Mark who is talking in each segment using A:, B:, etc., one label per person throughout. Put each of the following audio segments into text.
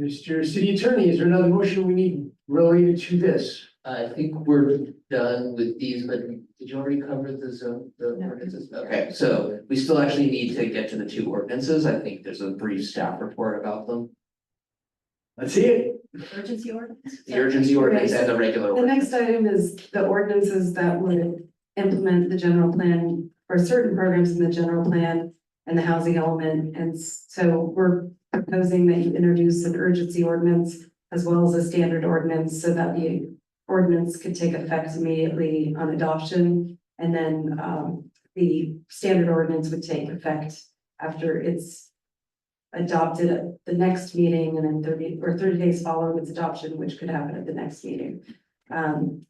A: Mr. City Attorney, is there another motion we need related to this?
B: I think we're done with these, but did you already cover the zone, the
C: No.
B: ordinances? Okay, so we still actually need to get to the two ordinances. I think there's a brief staff report about them.
A: Let's see it.
C: Urgency ordinance?
B: The urgency ordinance and the regular
D: The
B: ordinance.
D: next item is the ordinances that would implement the general plan or certain programs in the general plan and the housing element. And s- so we're proposing that you introduce an urgency ordinance as well as a standard ordinance so that the ordinance could take effect immediately on adoption. And then um, the standard ordinance would take effect after it's adopted at the next meeting and then thirty or thirty days following its adoption, which could happen at the next meeting. Um,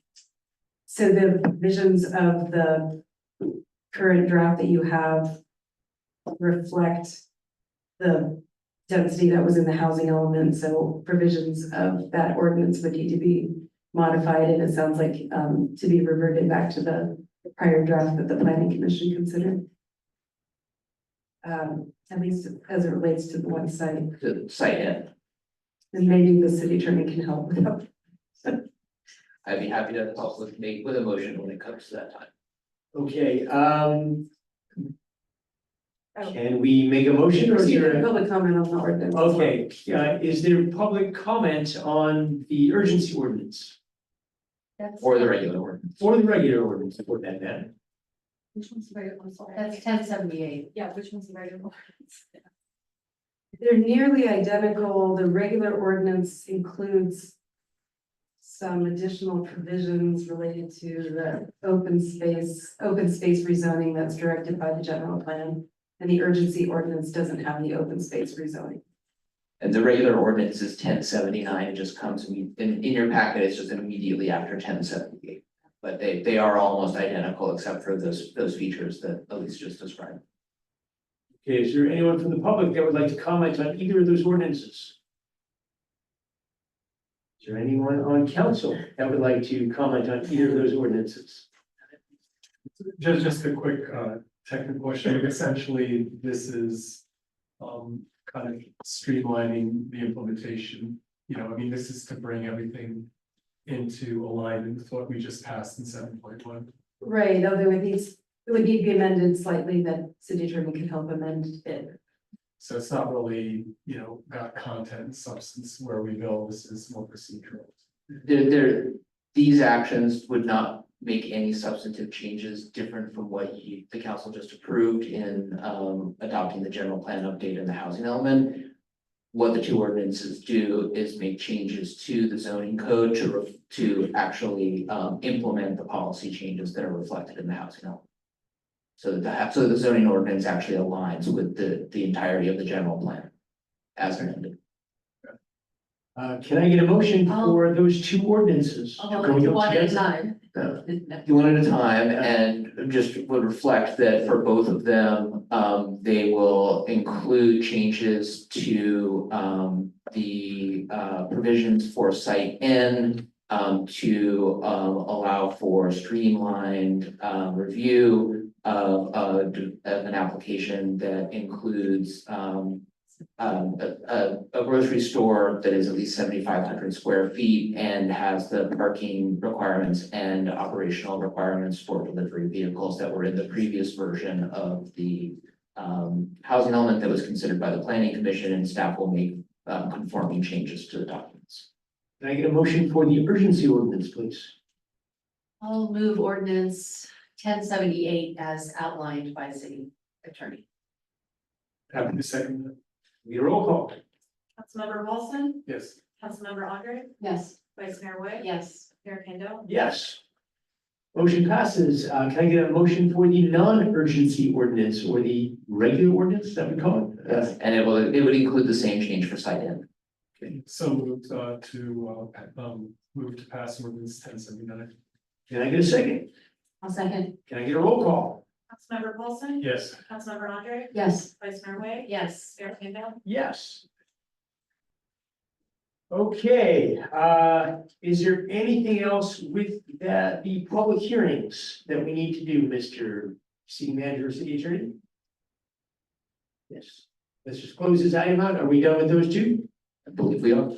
D: so the visions of the current draft that you have reflect the density that was in the housing element, so provisions of that ordinance would need to be modified, and it sounds like, um, to be reverted back to the prior draft that the planning commission considered. Um, at least as it relates to the one site,
B: To cite it,
D: and maybe the city attorney can help with that.
B: I'd be happy to help with make with a motion when it comes to that time.
A: Okay, um.
C: Oh.
A: Can we make a motion or is
D: Proceed
A: there?
D: to
A: a-
D: public comment on the ordinance.
A: Okay, uh, is there public comment on the urgency ordinance
C: That's-
B: Or the regular ordinance.
A: or the regular ordinance for that matter?
C: Which one's the regular, I'm sorry.
E: That's ten seventy-eight.
C: Yeah, which one's the regular?
D: They're nearly identical. The regular ordinance includes some additional provisions related to the open space, open space rezoning that's directed by the general plan. And the urgency ordinance doesn't have the open space rezoning.
B: And the regular ordinance is ten seventy nine, it just comes in in your packet, it's just immediately after ten seventy eight. But they they are almost identical except for those those features that Elise just described.
A: Okay, is there anyone from the public that would like to comment on either of those ordinances? Is there anyone on council that would like to comment on either of those ordinances?
F: Just, just a quick, uh, technical question. Essentially, this is, um, kind of streamlining the implementation. You know, I mean, this is to bring everything into alignment with what we just passed in seven point one.
D: Right, although it needs, it would need to be amended slightly, that city attorney could help amend it.
F: So it's not really, you know, got content and substance where we go. This is more procedural.
B: There, there, these actions would not make any substantive changes different from what you, the council just approved in, um, adopting the general plan update and the housing element. What the two ordinances do is make changes to the zoning code to, ref- to actually, um, implement the policy changes that are reflected in the housing element. So that, the ha- so the zoning ordinance actually aligns with the, the entirety of the general plan as amended.
A: Uh, can I get a motion for those two ordinances?
D: Oh,
A: Can we go
E: One at a
A: together?
E: time.
B: Uh, do one at a time and just would reflect that for both of them, um, they will include changes to, um, the, uh, provisions for site N, um, to, um, allow for streamlined, um, review of, uh, d- of an application that includes, um, um, a, a, a grocery store that is at least seventy-five hundred square feet and has the parking requirements and operational requirements for delivery vehicles that were in the previous version of the um, housing element that was considered by the planning commission and staff will make um, conforming changes to the documents.
A: Can I get a motion for the urgency ordinance, please?
E: I'll move ordinance ten seventy-eight as outlined by city attorney.
F: Happy to second that.
A: We roll call.
C: Councilmember Wilson,
F: Yes.
C: Councilmember Andre,
E: Yes.
C: Vice Mayor Wood.
E: Yes.
C: Mayor Kendall.
A: Yes. Motion passes. Uh, can I get a motion for the non-urgency ordinance or the regular ordinance that we call it? Uh,
B: And it will, it would include the same change for site N.
F: So moved, uh, to, uh, um, move to pass ordinance ten seventy-nine.
A: Can I get a second?
E: I'll second.
A: Can I get a roll call?
C: Councilmember Wilson,
F: Yes.
C: Councilmember Andre,
E: Yes.
C: Vice Mayor Wood.
E: Yes.
C: Mayor Kendall.
A: Yes. Okay, uh, is there anything else with that, the public hearings that we need to do, Mr. City Manager, or City Attorney? Yes, let's just close this item out. Are we done with those two?
B: I believe we are.